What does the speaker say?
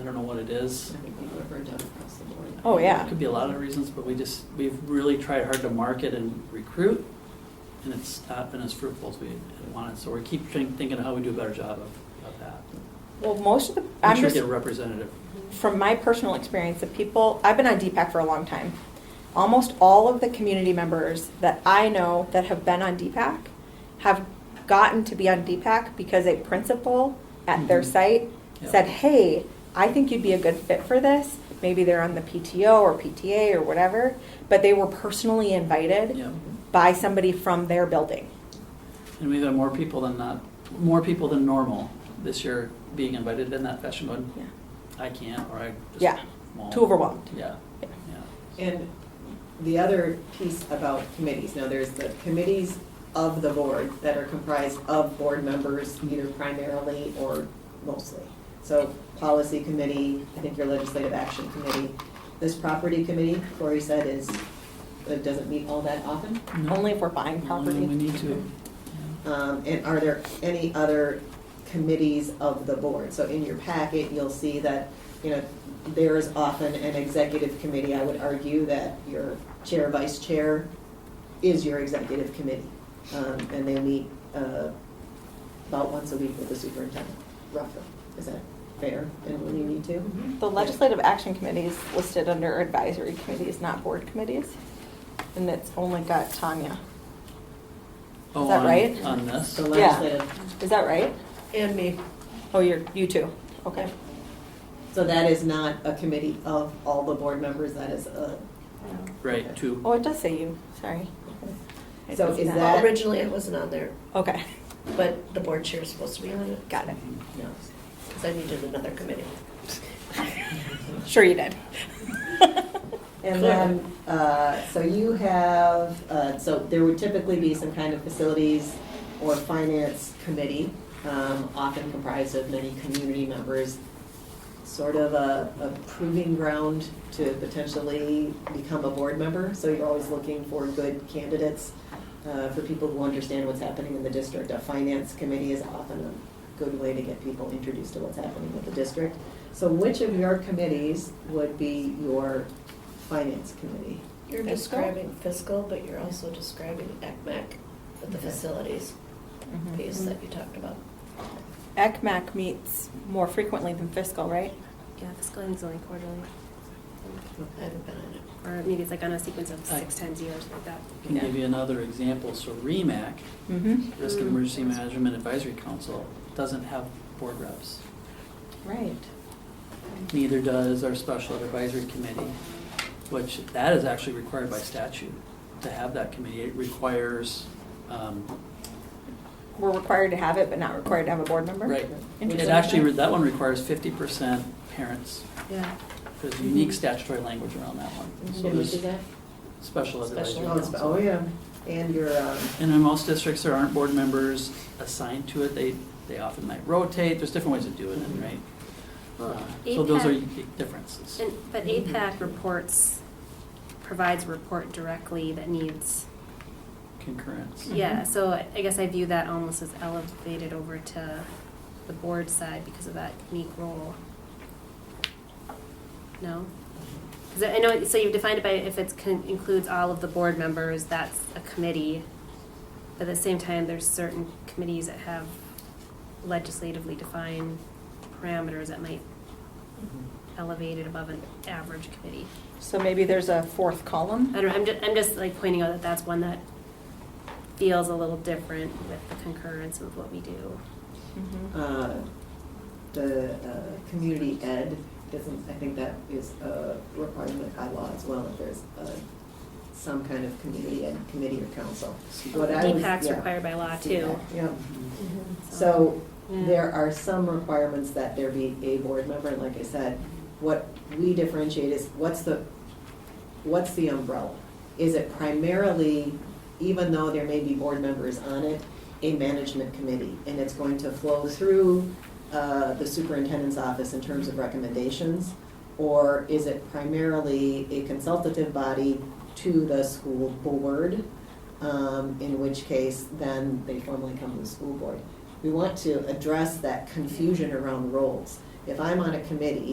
I don't know what it is. I think people are burned out across the board. Oh, yeah. It could be a lot of reasons, but we just, we've really tried hard to market and recruit, and it's not been as fruitful as we had wanted. So we keep trying- thinking of how we do a better job of, of that. Well, most of the, I'm We should just, get a representative. from my personal experience, the people, I've been on DPAC for a long time. Almost all of the community members that I know that have been on DPAC have gotten to be on DPAC because a principal at their Mhm. site Yeah. said, hey, I think you'd be a good fit for this. Maybe they're on the PTO or PTA or whatever, but they were personally invited Yeah. by somebody from their building. And we've had more people than not, more people than normal this year being invited in that fashion, going, Yeah. I can't, or I just Yeah. won't. Too overwhelmed. Yeah, Yeah. yeah. And the other piece about committees, now there's the committees of the board that are comprised of board members, either primarily or mostly. So policy committee, I think your legislative action committee, this property committee, Corey said is, it doesn't meet all that often. No, Only if we're buying only when We property. need to. Um, and are there any other committees of the board? So in your packet, you'll see that, you know, there is often an executive committee. I would argue that your chair, vice chair is your executive committee. Um, and they meet, uh, about once a week with the superintendent, roughly. Is that fair? And when you need to? The legislative action committee is listed under advisory committees, not board committees. And it's only got Tanya. Oh, that on- right? On this? The legislative Is that right? And me. Oh, you're, you two. Okay. So that is not a committee of all the board members, that is a. Right, two. Oh, it does say you. Sorry. It So does is not. that- Well, originally it wasn't on there, Okay. but the board chair is supposed to be on it. Got it. No. Because I needed another committee. Sure you did. And then, uh, so you have, uh, so there would typically be some kind of facilities or finance committee, um, often comprised of many community members, sort of a a proving ground to potentially become a board member. So you're always looking for good candidates, uh, for people who understand what's happening in the district. A finance committee is often a good way to get people introduced to what's happening with the district. So which of your committees would be your finance committee? You're Fiscal? describing fiscal, but you're also describing ECMAC with the Okay. facilities Mm-hmm. piece that you talked about. ECMAC meets more frequently than fiscal, right? Yeah, fiscal and zoning quarterly, I haven't been on it. or maybe it's like on a sequence of Aye. six times a year or something like that. Can give you another example. So REMAC, Mm-hmm. Risk and Mm. Emergency Management Advisory Council, doesn't have board reps. Right. Neither does our Special Ed Advisory Committee, which that is actually required by statute to have that committee. It requires, um, We're required to have it, but not required to have a board member? right. It Interesting. actually, that one requires fifty percent parents. Yeah. There's unique statutory language around that one. So Mm-hmm. Did we do there's that? Special Ed Advisory Special Oh, it's- Council. Oh, yeah, and your, um, And in most districts, there aren't board members assigned to it. They, they often might rotate. There's different ways of doing it, right? Mm-hmm. Well, Uh, So those are APAC big differences. And, but APAC reports, provides a report directly that needs, Concurrence. yeah, Mhm. so I guess I view that almost as elevated over to the board side because of that unique role. No? Because I know, so you've defined it by, if it includes all of the board members, that's a committee. But at the same time, there's certain committees that have legislatively defined parameters that might Mm-hmm. elevate it above an average committee. So maybe there's a fourth column? I don't, I'm just, I'm just like pointing out that that's one that feels a little different with the concurrence of what we do. Mhm. uh, the uh, community ed isn't, I think that is a requirement by law as well, if there's uh, some kind of community ed committee or council. What I was- DPAC's yeah. required by law too. Yeah, Mhm. so Yeah. there are some requirements that there be a board member, and like I said, what we differentiate is what's the, what's the umbrella? Is it primarily, even though there may be board members on it, a management committee? And it's going to flow through uh, the superintendent's office in terms of recommendations? Or is it primarily a consultative body to the school board? um, In which case, then they formally come to the school board. We want to address that confusion around roles. If I'm on a committee,